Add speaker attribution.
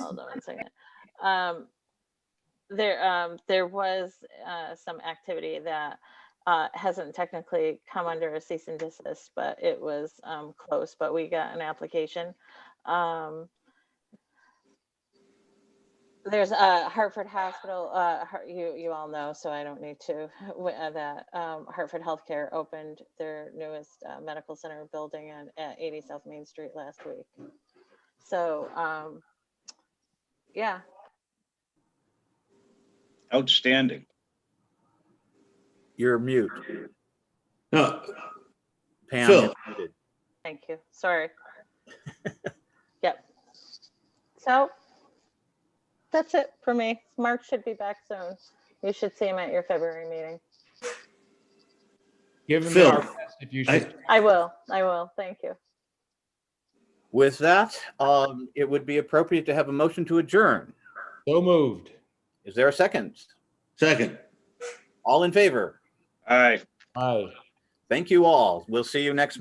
Speaker 1: Hold on one second. Um, there, um, there was, uh, some activity that, uh, hasn't technically come under a cease and desist, but it was, um, close, but we got an application. Um, there's, uh, Hartford Hospital, uh, Har- you, you all know, so I don't need to, w- uh, that, um, Hartford Healthcare opened their newest, uh, medical center building at, at eighty South Main Street last week. So, um, yeah,
Speaker 2: Outstanding.
Speaker 3: You're mute.
Speaker 4: No,
Speaker 3: Pam,
Speaker 4: Phil.
Speaker 3: you're muted.
Speaker 1: thank you. Sorry. Yep. So that's it for me. Mark should be back soon. You should see him at your February meeting.
Speaker 5: Give him
Speaker 4: Phil,
Speaker 5: the RFS if you
Speaker 4: I-
Speaker 5: should.
Speaker 1: I will. I will. Thank you.
Speaker 3: With that, um, it would be appropriate to have a motion to adjourn.
Speaker 5: So moved.
Speaker 3: Is there a second?
Speaker 4: second.
Speaker 3: All in favor?
Speaker 2: Aye.
Speaker 5: Aye.
Speaker 3: Thank you all. We'll see you next